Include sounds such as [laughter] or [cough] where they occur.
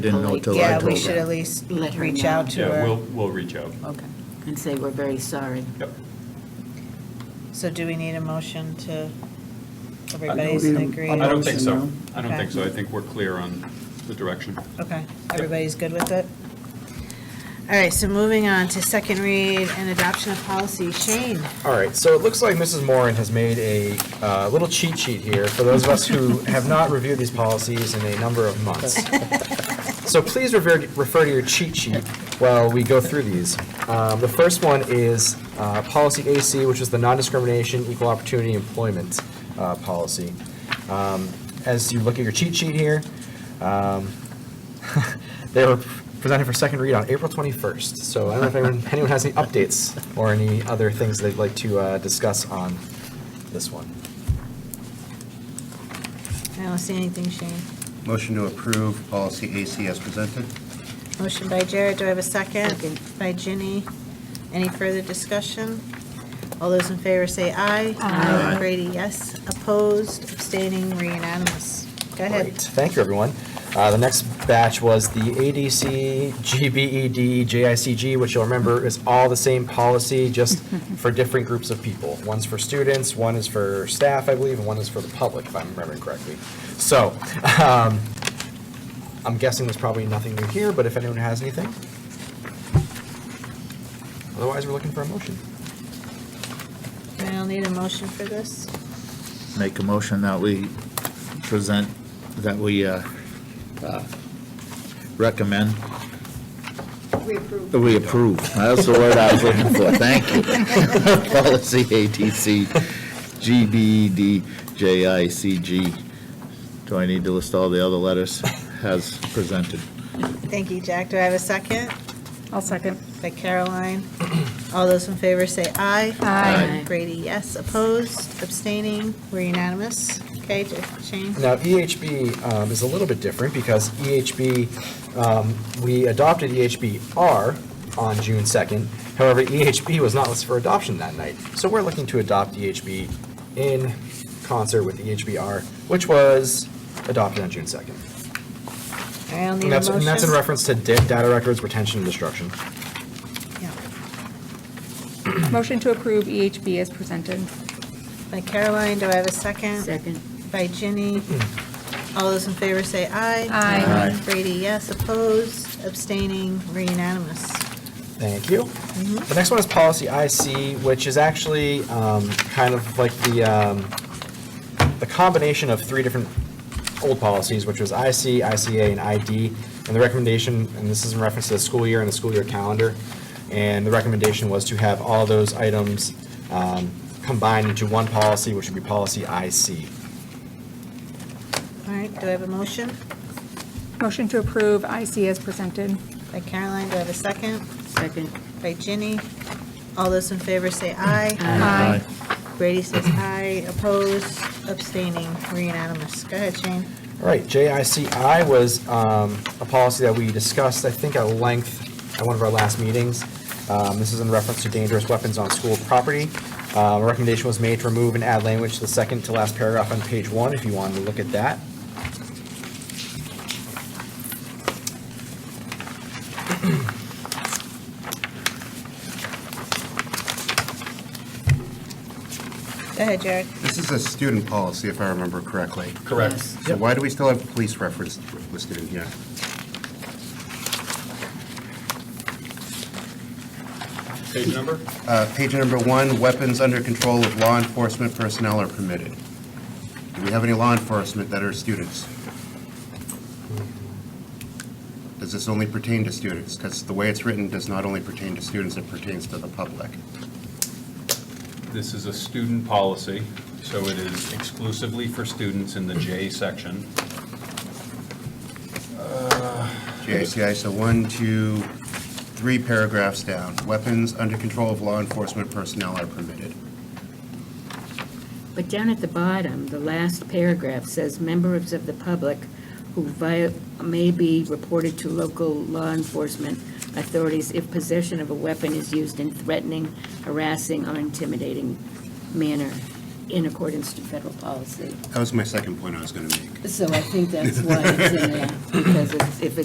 Didn't know till I Yeah, we told should at her. least Let her reach know. out to Yeah, we'll, her. we'll reach out. Okay. And say we're very sorry. Yep. So do we need a motion to, everybody's Everybody's in agreed? agree? I don't think so. Motion, I don't Okay. think so. I think we're clear on the direction. Okay, everybody's good with it? All right, so moving on to second read and adoption of policy. Shane? All right, so it looks like Mrs. Moran has made a uh, little cheat sheet here for those of us who have not reviewed these policies in a number of months. So please refer, refer to your cheat sheet while we go through these. Um, The first one is uh, Policy AC, which is the non-discrimination, equal opportunity employment uh, policy. Um, As you look at your cheat sheet here, um, [laughs] they were presented for second read on April 21st. So I don't know if anyone, anyone has any updates or any other things they'd like to uh, discuss on this one. I don't see anything, Shane. Motion to approve policy AC as presented. Motion by Jared, do I have a second? Second. By Ginny. Any further discussion? All those in favor say aye. Aye. Brady, yes. Opposed, abstaining, we're unanimous. Go Great. ahead. Thank you, everyone. Uh, The next batch was the ADC, GBED, JICG, which you'll remember is all the same policy, just [laughs] for different groups of people. One's for students, one is for staff, I believe, and one is for the public, if I'm remembering correctly. So um, I'm guessing there's probably nothing new here, but if anyone has anything? Otherwise, we're looking for a motion. I'll need a motion for this. Make a motion that we present, that we uh, uh, recommend. We approve. That's the word I was looking for. Thank you. [laughs] Policy ATC, GBED, JICG. Do I need to list all the other letters as presented? Thank you, Jack. Do I have a second? I'll second. By Caroline. [clears throat] All those in favor say aye. Aye. Brady, yes. Opposed, abstaining, we're unanimous. Okay, Shane? Now, EHB um, is a little bit different because EHB, um, we adopted EHBR on June 2nd. However, EHB was not listed for adoption that night. So we're looking to adopt EHB in concert with E EHBR, which was adopted on June 2nd. All right, I'll need a And that's, motion. and that's in reference to da- data records retention and destruction. Yeah. Motion to approve EHB as presented. By Caroline, do I have a second? Second. By [clears throat] Ginny. All those in favor say aye. Aye. Aye. Brady, yes. Opposed, abstaining, we're unanimous. Thank you. The next one is policy IC, which is actually um, kind of like the, um, the combination of three different old policies, which was IC, ICA, and ID. And the recommendation, and this is in reference to the school year and the school year calendar, and the recommendation was to have all those items um, combined into one policy, which would be policy IC. All right, do I have a motion? Motion to approve IC as presented. By Caroline, do I have a second? Second. By Ginny. All those in favor say aye. Aye. Brady says aye. Opposed, abstaining, we're unanimous. Go ahead, Shane. All right, JICI was um, a policy that we discussed, I think, at length at one of our last meetings. Um, This is in reference to dangerous weapons on school property. Um, A recommendation was made to remove and add language to the second to last paragraph on page one, if you wanted to look at that. Go ahead, Jared. This is a student policy, if I remember correctly. Correct. So why do we still have police reference listed in here? Page number? Uh, Page number one, weapons under control of law enforcement personnel are permitted. Do we have any law enforcement that are students? Does this only pertain to students? Because the way it's written does not only pertain to students, it pertains to the public. This is a student policy, so it is exclusively for students in the J section. JICI, so one, two, three paragraphs down. Weapons under control of law enforcement personnel are permitted. But down at the bottom, the last paragraph says, "Members of the public who vi- may be reported to local law enforcement authorities if possession of a weapon is used in threatening, harassing, or intimidating manner in accordance to federal policy." That was my second point I was going to make. So I think that's why it's in there, because it's- if it's